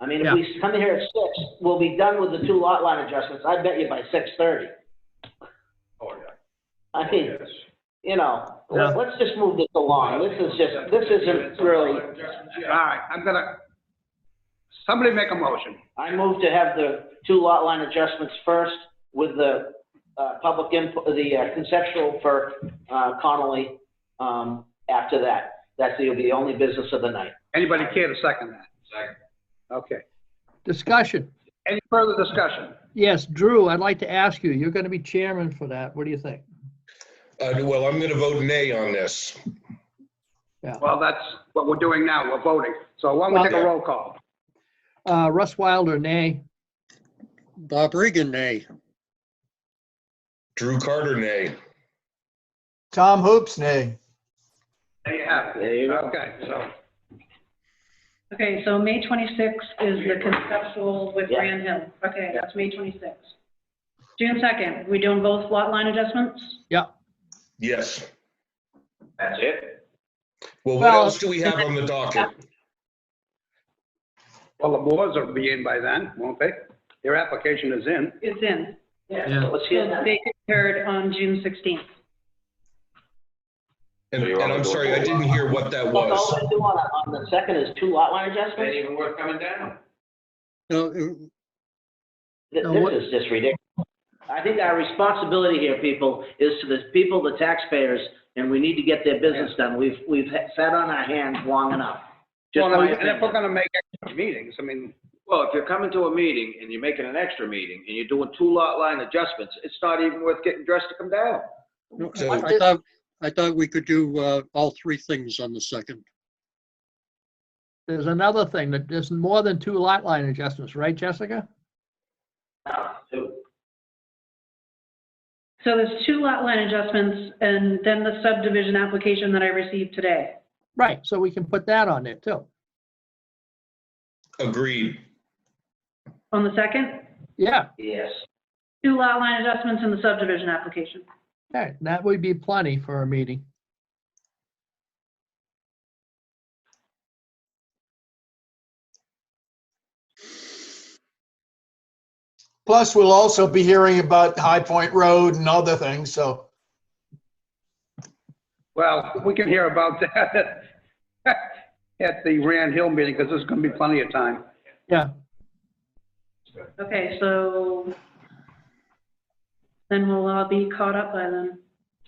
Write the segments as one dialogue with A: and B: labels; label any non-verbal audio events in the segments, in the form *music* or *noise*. A: I mean, if
B: Yeah.
A: we come in here at six, we'll be done with the two lot line adjustments, I bet you by six thirty.
C: Oh, yeah.
A: I mean,
C: Yes.
A: you know,
B: Yeah.
A: let- let's just move this along, this is just, this isn't really,
C: Yeah.
D: All right, I'm gonna, somebody make a motion.
A: I move to have the two lot line adjustments first with the, uh, public input, the uh, conceptual for, uh, Connolly, um, after that. That's the, the only business of the night.
D: Anybody care to second that?
C: Second.
D: Okay.
B: Discussion.
D: Any further discussion?
B: Yes, Drew, I'd like to ask you, you're going to be chairman for that. What do you think?
E: Uh, well, I'm gonna vote nay on this.
D: Well, that's what we're doing now, we're voting. So why don't we take a roll call?
B: Uh, Russ Wilder, nay.
F: Bob Regan, nay.
E: Drew Carter, nay.
G: Tom Hoops, nay.
D: There you have it.
A: There you go.
D: Okay, so,
H: Okay, so May 26th is the conceptual with
A: Yeah.
H: Grand Hill. Okay, that's May 26th. June 2nd, we doing both lot line adjustments?
E: Yes.
C: That's it?
E: Well, what
B: Well-
E: else do we have on the docket?
D: well, the Moors will be in by then, won't they? Their application is in.
H: It's in.
B: Yeah.
A: Let's hear that.
H: They heard on June 16th.
E: And,
C: So you
E: and
C: wanna
E: I'm
C: do a
E: sorry, I
C: roll?
E: didn't hear what that
A: That's all
E: was.
A: we do on, on the second is two lot line
C: Ain't
A: adjustments?
C: even worth coming down.
F: No, uh,
A: Th-
B: No,
A: This
B: what-
A: is just ridiculous. I think our responsibility here, people, is to the people, the taxpayers, and we need to get their business done. We've, we've ha- sat on our hands long enough. Just
D: Well,
A: my
D: and if we're
A: opinion.
D: gonna make extra meetings, I mean,
C: Well, if you're coming to a meeting and you're making an extra meeting and you're doing two lot line adjustments, it's not even worth getting dressed to come down.
F: no,
E: So-
F: I thought, I thought we could do uh, all three things on the second.
B: There's another thing that there's more than two lot line adjustments, right, Jessica?
H: So there's two lot line adjustments and then the subdivision application that I received today.
B: Right, so we can put that on there too.
E: Agreed.
H: On the 2nd,
B: Yeah,
A: Yes.
H: two lot line adjustments and the subdivision application.
B: okay, that would be plenty for a meeting.
G: Plus, we'll also be hearing about High Point Road and other things, so.
D: well, we can hear about *laughs* that at the Rand Hill meeting, because there's gonna be plenty of time.
B: Yeah,
H: Okay, so then we'll all be caught up by then.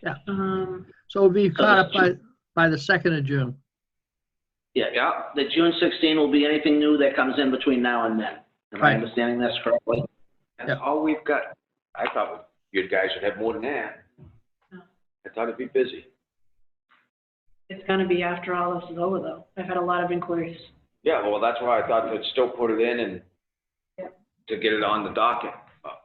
B: Yeah.
H: Um,
B: so we'll be caught up by, by the second of June.
A: Yeah, the June 16 will be anything new that comes in between now and then. Am I
B: Right.
A: understanding this correctly?
B: Yeah.
C: That's all we've got. I thought you guys would have more than that.
H: No.
C: I thought it'd be busy.
H: It's gonna be after all this is over, though. I've had a lot of inquiries.
C: Yeah, well, that's why I thought they'd still put it in and
H: Yeah.
C: to get it on the docket. But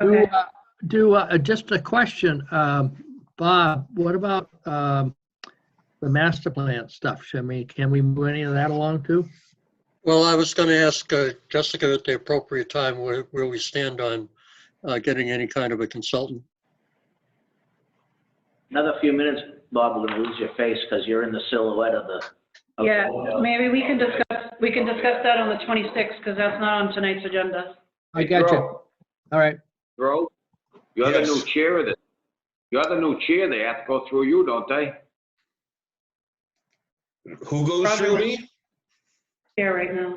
B: Do,
H: Okay.
B: uh, Do, uh, just a question, um, Bob, what about um, the master plan stuff? Should we, can we move any of that along too?
F: Well, I was going to ask uh, Jessica at the appropriate time where, where we stand on uh, getting any kind of a consultant.
A: Another few minutes, Bob, we're gonna lose your face because you're in the silhouette of the. of the-
H: Yeah, maybe we can discuss, we can discuss that on the 26th, because that's not on tonight's agenda.
B: I got you.
C: Throw,
B: All right,
C: Throw, you're the new
E: Yes.
C: chair of the, you're the new chair. They have to go through you, don't they?
E: Who goes through me?
H: Yeah, right now.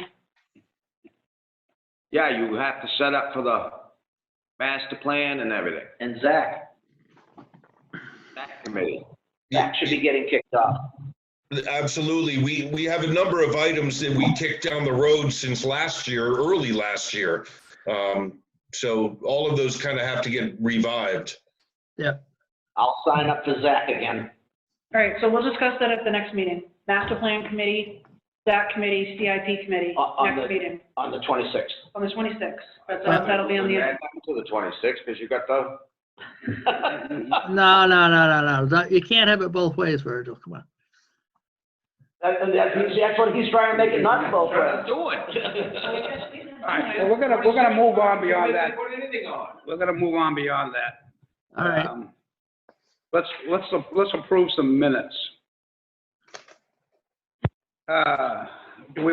C: Yeah, you have to set up for the master plan and everything.
A: And Zach,
C: That committee.
A: Zach should be getting kicked off.
E: Absolutely. We, we have a number of items that we kicked down the road since last year, early last year. Um, so all of those kind of have to get revived.
A: I'll sign up for Zach again.
H: All right, so we'll discuss that at the next meeting. Master Plan Committee, that committee, CIP Committee,
A: On- on
H: next
A: the-
H: meeting,
A: on the 26th.
H: on the 26th. But that- That'll be on the,
C: Add that To the twenty-sixth, because you got the,
B: no, no, no, no, no, That- you can't have it both ways, Virgil, come on.
A: That- that- that's- That's what he's trying to make it not go for.
C: Trying to do
A: *laughs*
C: it. All right.
D: *laughs* Well, we're gonna, we're gonna move on beyond that.
C: Put anything on.
D: We're gonna move on beyond that.
B: All right,
D: Um, Let's, let's, let's approve some minutes. Uh, Do we